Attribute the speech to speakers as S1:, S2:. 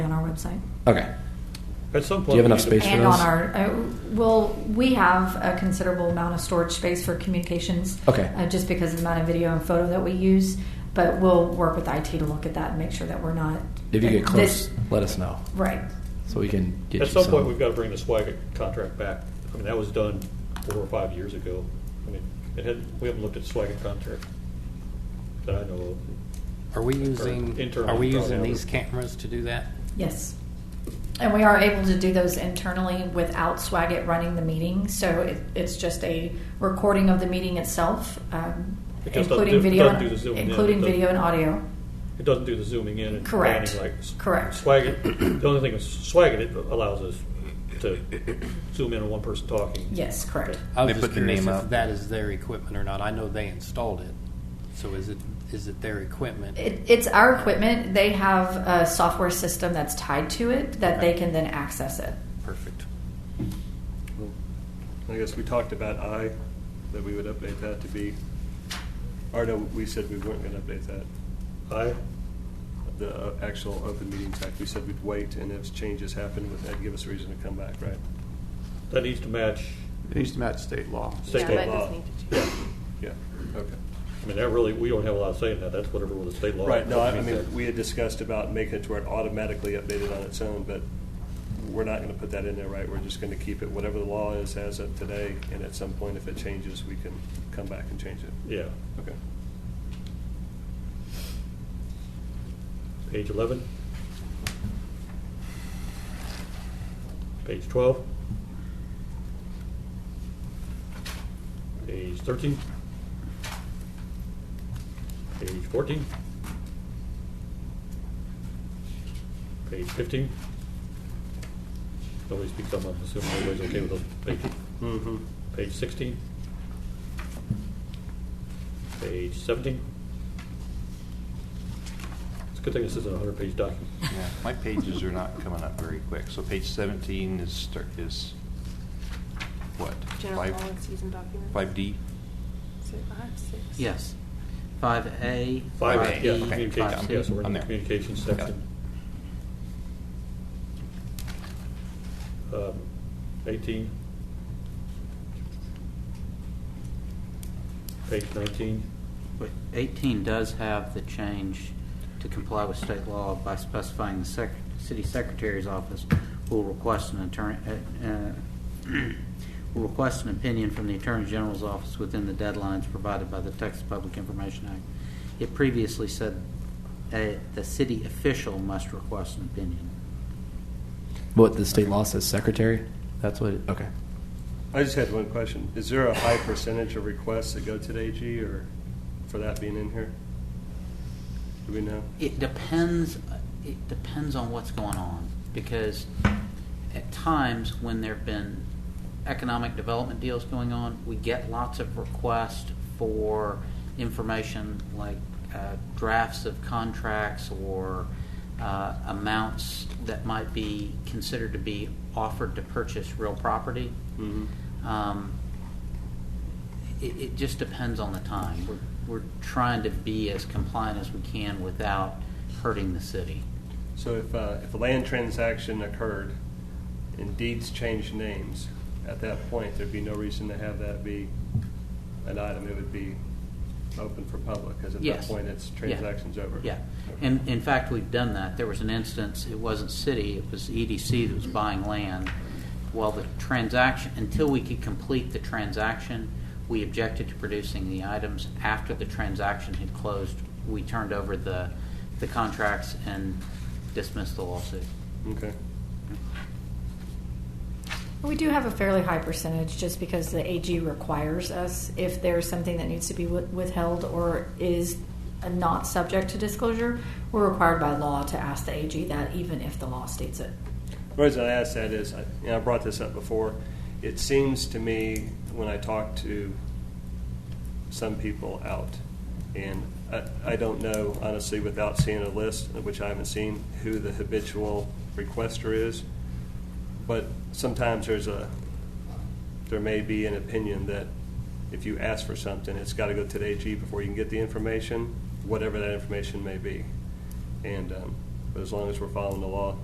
S1: website.
S2: Okay.
S3: At some
S2: Do
S3: point,
S2: you have
S3: we
S2: enough
S3: need to-
S2: space for
S1: And on
S2: those?
S1: our, uh, well, we have a considerable amount of storage space for communications.
S2: Okay.
S1: Uh, just because of the amount of video and photo that we use, but we'll work with IT to look at that and make sure that we're not.
S2: If you get
S1: that
S2: close,
S1: this-
S2: let us know
S1: Right.
S2: so we can get
S3: At
S2: you
S3: some point, we've got to bring the swag contract back. I mean, that was done four or five years ago. I mean, it had, we haven't looked at swag contract that I know
S4: Are we using,
S3: internal
S4: are we
S3: control
S4: using
S3: tower.
S4: these cameras to do that?
S1: Yes. And we are able to do those internally without Swagit running the meeting. So it, it's just a recording of the meeting itself, um,
S3: It just doesn't
S1: including
S3: do-
S1: video,
S3: doesn't do the Zoom in,
S1: including
S3: it doesn't-
S1: video and audio.
S3: of. It doesn't do the zooming in and
S1: Correct.
S3: panning like. s-
S1: Correct.
S3: Swag, the only thing with swag, it allows us to zoom in on one person talking.
S1: Yes, correct.
S3: Okay.
S4: I was
S5: They
S4: just
S5: put their name
S4: curious if
S5: up.
S4: that is their equipment or not. I know they installed it, so is it, is it their equipment?
S1: It, it's our equipment. They have a software system that's tied to it that they can then access it.
S4: Perfect.
S6: I guess we talked about I, that we would update that to be, or no, we said we weren't gonna update that.
S3: I,
S6: The uh, actual open meetings act, we said we'd wait, and if changes happen, would that give us a reason to come back, right?
S3: that needs to match
S5: It needs to match state law.
S3: state
S7: Yeah, that
S3: law.
S7: does need to change.
S3: Yeah.
S6: Yeah, okay.
S3: I mean, that really, we don't have a lot of say in that. That's whatever the state law.
S6: Right, no, I I
S3: that.
S6: mean, we had discussed about making it to where it automatically updated on its own, but we're not gonna put that in there, right? We're just gonna keep it, whatever the law is as of today, and at some point, if it changes, we can come back and change it.
S3: Yeah.
S6: Okay.
S3: Page 11. Page 12. Page 13. Page 14. Page 15. Nobody speaks up, I'm assuming everybody's okay with those pages.
S6: Mm-hmm.
S3: Page 16. Page 17. It's a good thing this isn't a 100-page document.
S5: Yeah, my pages are not coming up very quick. So page 17 is, start- is what?
S7: General
S5: Five-
S7: policies and documents.
S5: 5D?
S7: So five, six.
S8: Yes. Five A.
S3: Five, yeah,
S5: Okay,
S3: communications,
S5: yeah,
S3: yeah, so we're in
S5: I'm
S3: the
S5: there.
S3: communications
S5: Got it.
S3: section. Um, 18. Page 19.
S8: But Eighteen does have the change to comply with state law by specifying the sec- city secretary's office will request an attorney, uh, uh, will request an opinion from the attorney general's office within the deadlines provided by the Texas Public Information Act. It previously said, uh, the city official must request an opinion.
S2: What the state law says, secretary? That's what. It, okay.
S6: I just had one question. Is there a high percentage of requests that go to the AG or for that being in here? Do we know?
S8: It depends. It depends on what's going on because at times when there've been economic development deals going on, we get lots of requests for information like uh, drafts of contracts or uh, amounts that might be considered to be offered to purchase real property.
S6: Mhm.
S8: Um, it, it just depends on the time. We're, we're trying to be as compliant as we can without hurting the city.
S6: So if, uh, if a land transaction occurred and deeds changed names, at that point, there'd be no reason to have that be an item. It would be open for public, because at that
S8: Yes.
S6: point, it's
S8: Yeah.
S6: transaction's over.
S8: Yeah.
S6: Okay.
S8: And in fact, we've done that. There was an instance, it wasn't city, it was EDC that was buying land. Well, the transaction, until we could complete the transaction, we objected to producing the items. After the transaction had closed, we turned over the, the contracts and dismissed the lawsuit.
S6: Okay.
S1: We do have a fairly high percentage just because the AG requires us if there's something that needs to be wi- withheld or is not subject to disclosure, we're required by law to ask the AG that even if the law states it.
S6: The reason I ask that is, I- and I brought this up before, it seems to me when I talk to some people out, and I, I don't know honestly without seeing a list, which I haven't seen, who the habitual requester is, but sometimes there's a, there may be an opinion that if you ask for something, it's got to go to the AG before you can get the information, whatever that information may be. And, um, but as long as we're following the law,